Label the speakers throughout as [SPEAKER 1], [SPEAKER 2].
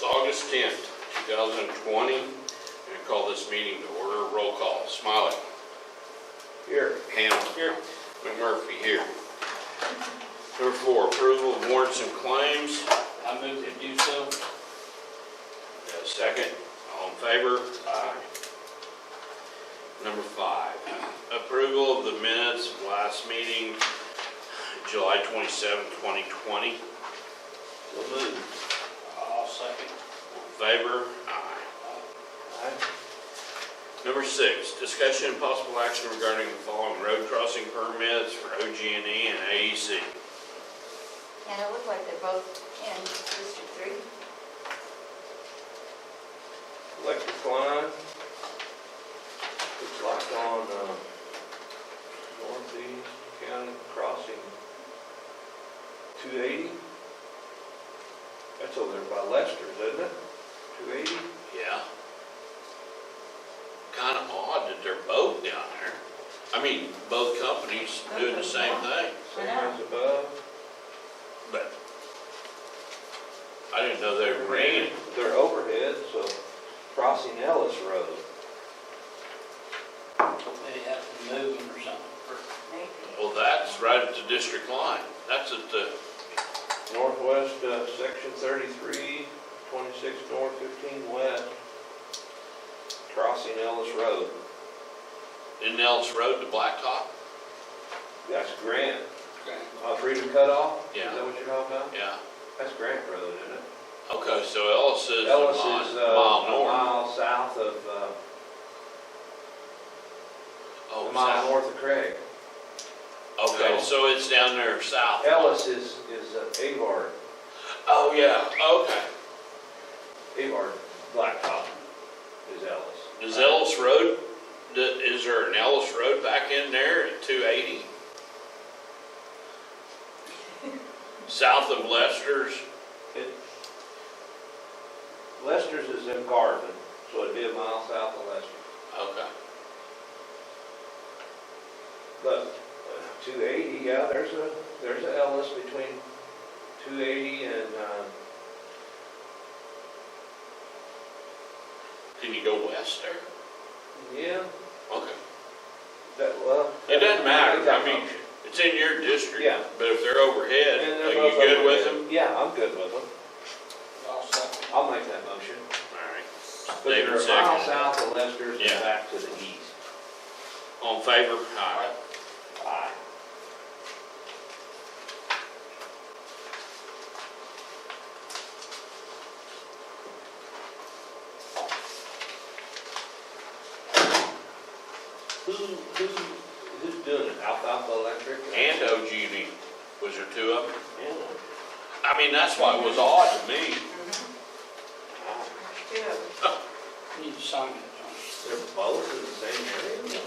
[SPEAKER 1] tenth, two thousand and twenty. And I call this meeting to order, roll call, Smiley. Here. Hamel. Here. McMurphy, here. Number four, approval of warrants and claims.
[SPEAKER 2] I move to do so.
[SPEAKER 1] Uh, Second, all in favor? Aye. Number five, approval of the minutes of last meeting, July 27, 2020. All in
[SPEAKER 2] So move. I'll second.
[SPEAKER 1] favor? Aye. Number six, discussion and possible action regarding the following road crossing permits for OG&E and E AEC.
[SPEAKER 3] And it looked like they're both in District Three.
[SPEAKER 4] electric line. Looks like on, uh, Northeast County Crossing, two eighty. That's over there by Lester's, isn't it? Two eighty?
[SPEAKER 1] Yeah. Kind of odd that they're both down there. I mean, both companies doing the same thing,
[SPEAKER 3] I
[SPEAKER 4] Same
[SPEAKER 3] know.
[SPEAKER 4] as above.
[SPEAKER 1] but I didn't know they were ran.
[SPEAKER 4] They're overhead, so crossing Ellis Road.
[SPEAKER 2] Maybe have to move them or something.
[SPEAKER 3] Maybe.
[SPEAKER 1] Well, that's right at the district line. That's at the,
[SPEAKER 4] Northwest, uh, section 33, 26 north, fifteen west. Crossing Ellis Road.
[SPEAKER 1] in Nels Road to Blacktop.
[SPEAKER 4] That's Grant. Uh, Freedom Cutoff?
[SPEAKER 1] Yeah.
[SPEAKER 4] Is that what you're talking about?
[SPEAKER 1] Yeah.
[SPEAKER 4] That's Grant Road, isn't it?
[SPEAKER 1] Okay, so Ellis is a
[SPEAKER 4] Ellis is, uh,
[SPEAKER 1] mile, mile
[SPEAKER 4] a
[SPEAKER 1] north.
[SPEAKER 4] mile south of, uh,
[SPEAKER 1] Oh,
[SPEAKER 4] a mile
[SPEAKER 1] south.
[SPEAKER 4] north of Craig.
[SPEAKER 1] Okay, so it's down there south.
[SPEAKER 4] Ellis is, is uh, Avard,
[SPEAKER 1] Oh, yeah,
[SPEAKER 4] Avard Blacktop is Ellis.
[SPEAKER 1] okay. Is Ellis Road, d- is there an Ellis Road back in there at two eighty? South of Lester's,
[SPEAKER 4] It- Lester's is in Garvin, so it'd be a mile south of Lester.
[SPEAKER 1] okay.
[SPEAKER 4] But uh, two eighty, yeah, there's a, there's a Ellis between two eighty and, um,
[SPEAKER 1] Can you go west there?
[SPEAKER 4] yeah,
[SPEAKER 1] Okay.
[SPEAKER 4] that, well.
[SPEAKER 1] It doesn't matter, I
[SPEAKER 4] that-
[SPEAKER 1] mean, it's in your district.
[SPEAKER 4] Yeah.
[SPEAKER 1] But if they're overhead,
[SPEAKER 4] And
[SPEAKER 1] are
[SPEAKER 4] they're
[SPEAKER 1] you
[SPEAKER 4] both
[SPEAKER 1] good with
[SPEAKER 4] overhead.
[SPEAKER 1] them?
[SPEAKER 4] Yeah, I'm good with them.
[SPEAKER 2] I'll second.
[SPEAKER 4] I'll make that motion.
[SPEAKER 1] Alright.
[SPEAKER 4] But
[SPEAKER 1] David
[SPEAKER 4] they're a mile
[SPEAKER 1] seconded.
[SPEAKER 4] south of Lester's
[SPEAKER 1] Yeah.
[SPEAKER 4] and back to the east.
[SPEAKER 1] On favor? Aye.
[SPEAKER 4] Aye. Who, who, who's doing it? Alfalfa Electric?
[SPEAKER 1] And uh, OG&E, was there two of them?
[SPEAKER 4] Yeah.
[SPEAKER 1] I mean, that's why it was odd to me.
[SPEAKER 3] Mhm. Two of them.
[SPEAKER 2] Need to sign it,
[SPEAKER 4] They're both in the same area?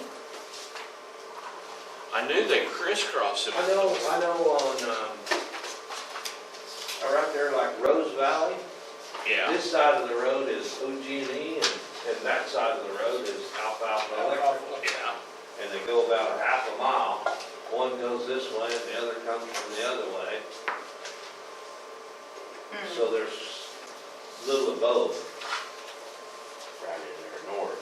[SPEAKER 1] I knew they crisscrossed them.
[SPEAKER 4] I know, I know on, um, right there like Rose Valley,
[SPEAKER 1] Yeah,
[SPEAKER 4] This side of the road is OG&E and, and that side of the road is Alfalfa
[SPEAKER 2] John.
[SPEAKER 4] Electric.
[SPEAKER 1] yeah.
[SPEAKER 4] And they go about a half a mile. One goes this way and the other comes from the other way.
[SPEAKER 3] Hmm.
[SPEAKER 4] So there's little of both. Right in there north.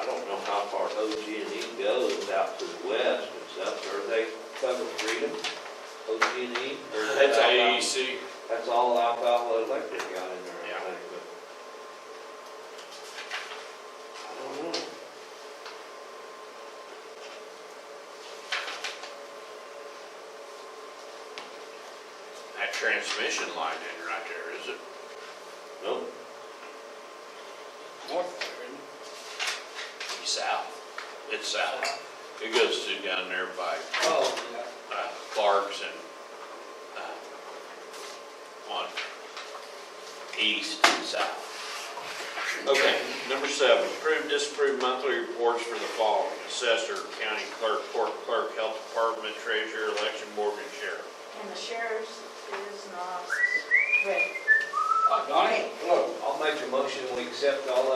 [SPEAKER 4] I don't know how far OG&E E goes out to the west and stuff. Are they covered freedom? OG&E? E? Or is that
[SPEAKER 1] That's
[SPEAKER 4] Alfalfa?
[SPEAKER 1] AEC.
[SPEAKER 4] That's all alfalfa electric got in there,
[SPEAKER 1] Yeah.
[SPEAKER 4] I think, but. I don't know.
[SPEAKER 1] That transmission line in right there, is it?
[SPEAKER 4] Nope,
[SPEAKER 2] North there, isn't
[SPEAKER 1] It's South. It's south. It goes through down there by
[SPEAKER 2] it? Oh, yeah.
[SPEAKER 1] uh, Clark's and, uh, on east and south. Okay, number seven, approve, disapprove monthly reports for the following, assessor, county clerk, court clerk, health department, treasurer, election board, and sheriff.
[SPEAKER 3] Hmm. And the sheriff's is not ready.
[SPEAKER 2] Oh, Donnie?
[SPEAKER 4] I'll make a motion, we accept all